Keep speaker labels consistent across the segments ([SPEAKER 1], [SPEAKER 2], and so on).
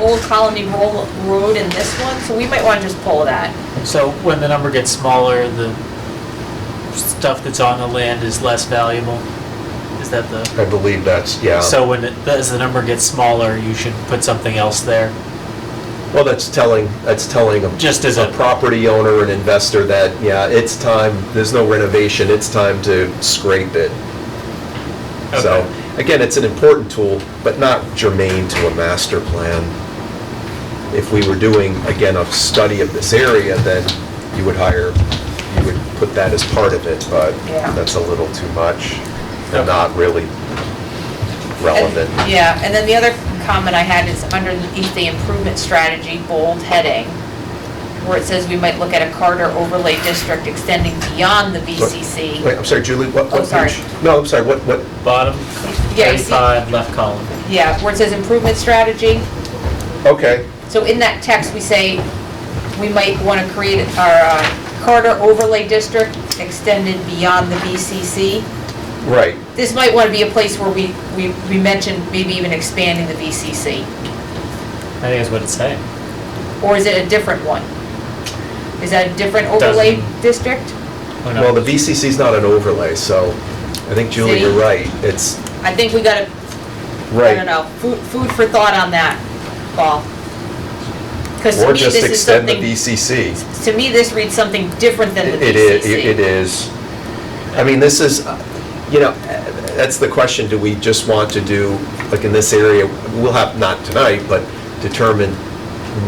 [SPEAKER 1] Old Colony Ro- Road in this one, so we might wanna just pull that.
[SPEAKER 2] So when the number gets smaller, the stuff that's on the land is less valuable? Is that the,
[SPEAKER 3] I believe that's, yeah.
[SPEAKER 2] so when, it- as the number gets smaller, you should put something else there?
[SPEAKER 3] Well, that's telling, that's telling a.
[SPEAKER 2] Just as a-
[SPEAKER 3] property owner and investor that, yeah, it's time, there's no renovation, it's time to scrape it. So, again, it's an important tool, but not germane to a master plan. If we were doing, again, a study of this area, then you would hire, you would put that as part of it, but
[SPEAKER 1] Yeah.
[SPEAKER 3] that's a little too much and
[SPEAKER 2] Okay.
[SPEAKER 3] not really relevant.
[SPEAKER 1] And- Yeah, and then the other comment I had is underneath the improvement strategy, bold heading, where it says we might look at a Carter overlay district extending beyond the VCC.
[SPEAKER 3] Wait, I'm sorry, Julie, what?
[SPEAKER 1] Oh,
[SPEAKER 3] what
[SPEAKER 1] sorry.
[SPEAKER 3] page? No, I'm sorry, what, what?
[SPEAKER 2] Bottom
[SPEAKER 1] Yeah, you see-
[SPEAKER 2] 35, left column.
[SPEAKER 1] Yeah, where it says improvement strategy.
[SPEAKER 3] Okay,
[SPEAKER 1] So in that text, we say we might want to create our uh, Carter overlay district extended beyond the VCC.
[SPEAKER 3] right.
[SPEAKER 1] This might want to be a place where we, we, we mentioned maybe even expanding the VCC.
[SPEAKER 2] I think that's what it's saying.
[SPEAKER 1] Or is it a different one? Is that a different overlay
[SPEAKER 2] Doesn't-
[SPEAKER 1] district?
[SPEAKER 2] Who
[SPEAKER 3] Well, the
[SPEAKER 2] knows?
[SPEAKER 3] VCC is not an overlay, so I think Julie,
[SPEAKER 1] See?
[SPEAKER 3] you're right. It's,
[SPEAKER 1] I think we got to, I don't
[SPEAKER 3] right.
[SPEAKER 1] know, food, food for thought on that, Paul. Because to
[SPEAKER 3] Or
[SPEAKER 1] me, this
[SPEAKER 3] just
[SPEAKER 1] is
[SPEAKER 3] extend the
[SPEAKER 1] something,
[SPEAKER 3] VCC.
[SPEAKER 1] to me, this reads something different than the VCC.
[SPEAKER 3] It is, it is. I mean, this is, uh, you know, that's the question, do we just want to do, like in this area, we'll have, not tonight, but determine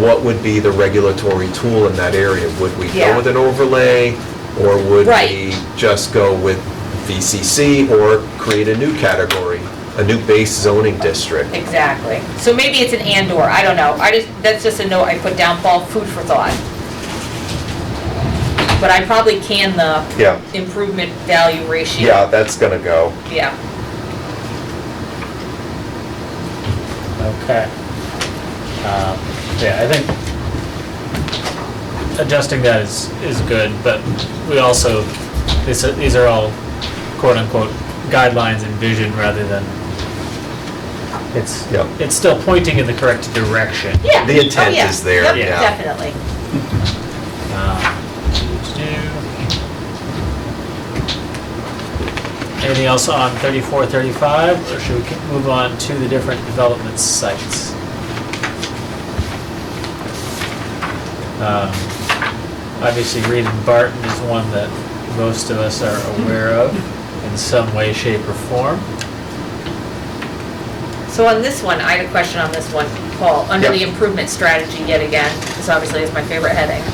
[SPEAKER 3] what would be the regulatory tool in that area? Would we
[SPEAKER 1] Yeah.
[SPEAKER 3] go with an overlay, or would
[SPEAKER 1] Right.
[SPEAKER 3] we just go with VCC, or create a new category, a new base zoning district?
[SPEAKER 1] Exactly. So maybe it's an and/or, I don't know. I just, that's just a note I put down, Paul, food for thought. But I probably can the
[SPEAKER 3] Yeah,
[SPEAKER 1] improvement value ratio.
[SPEAKER 3] yeah, that's gonna go.
[SPEAKER 1] Yeah.
[SPEAKER 2] Okay. Um, Yeah, I think adjusting that is, is good, but we also, this, these are all quote-unquote guidelines and vision rather than, it's,
[SPEAKER 3] Yep.
[SPEAKER 2] it's still pointing in the correct direction.
[SPEAKER 1] Yeah.
[SPEAKER 3] The intent
[SPEAKER 1] Oh, yeah.
[SPEAKER 3] is there,
[SPEAKER 1] Yep,
[SPEAKER 3] yeah.
[SPEAKER 1] Definitely.
[SPEAKER 2] Um, Anything else on 34, 35, or should we c- move on to the different development sites? Um, Obviously, Reed and Barton is one that most of us are aware of in some way, shape, or form.
[SPEAKER 1] So on this one, I had a question on this one, Paul, under the improvement strategy yet again, this obviously is my favorite heading.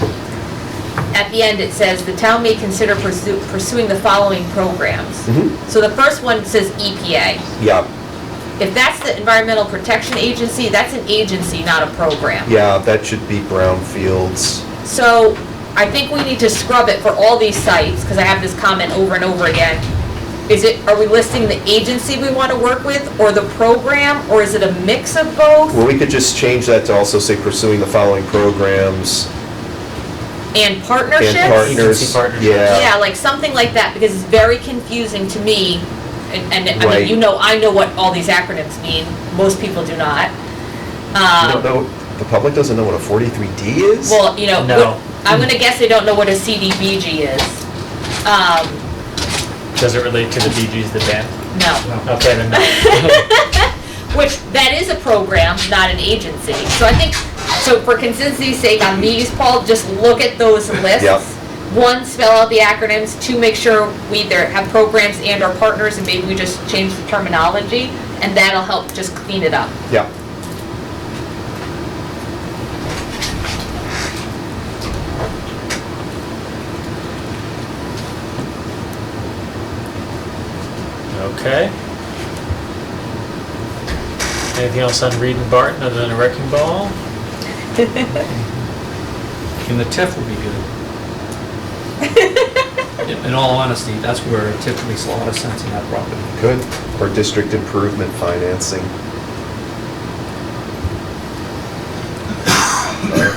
[SPEAKER 1] At the end, it says, "The town may consider pursue- pursuing the following programs."
[SPEAKER 3] Mm-hmm.
[SPEAKER 1] So the first one says EPA.
[SPEAKER 3] Yeah,
[SPEAKER 1] If that's the Environmental Protection Agency, that's an agency, not a program.
[SPEAKER 3] yeah, that should be brownfields.
[SPEAKER 1] So I think we need to scrub it for all these sites, because I have this comment over and over again. Is it, are we listing the agency we want to work with, or the program, or is it a mix of both?
[SPEAKER 3] Well, we could just change that to also say pursuing the following programs
[SPEAKER 1] And
[SPEAKER 3] and
[SPEAKER 1] partnerships?
[SPEAKER 3] partners.
[SPEAKER 2] Agency partnerships.
[SPEAKER 1] Yeah,
[SPEAKER 3] Yeah,
[SPEAKER 1] like something like that, because it's very confusing to me, and, and, I
[SPEAKER 3] Right.
[SPEAKER 1] mean, you know, I know what all these acronyms mean, most people do not.
[SPEAKER 3] you don't
[SPEAKER 1] Um,
[SPEAKER 3] know, the public doesn't know what a 43D is?
[SPEAKER 1] Well, you know,
[SPEAKER 2] No.
[SPEAKER 1] what- I'm gonna guess they don't know what a CDBG is. Um,
[SPEAKER 2] Does it relate to the BGs, the band?
[SPEAKER 1] no,
[SPEAKER 2] Okay, then no.
[SPEAKER 1] which, that is a program, not an agency. So I think, so for consistency's sake on these, Paul, just look at those lists.
[SPEAKER 3] Yep.
[SPEAKER 1] One, spell out the acronyms, two, make sure we either have programs and our partners, and maybe we just change the terminology, and that'll help just clean it up.
[SPEAKER 3] Yeah,
[SPEAKER 2] Okay. Anything else on Reed and Barton other than a wrecking ball?
[SPEAKER 4] And the TIF would be good. In- In all honesty, that's where a TIF makes a lot of sense in that property.
[SPEAKER 3] good. Or district improvement financing.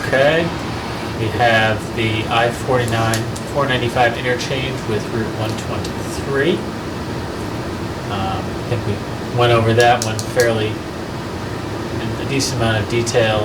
[SPEAKER 2] Okay. We have the I-49, 495 interchange with Route 123. Um, I think we went over that one fairly, in a decent amount of detail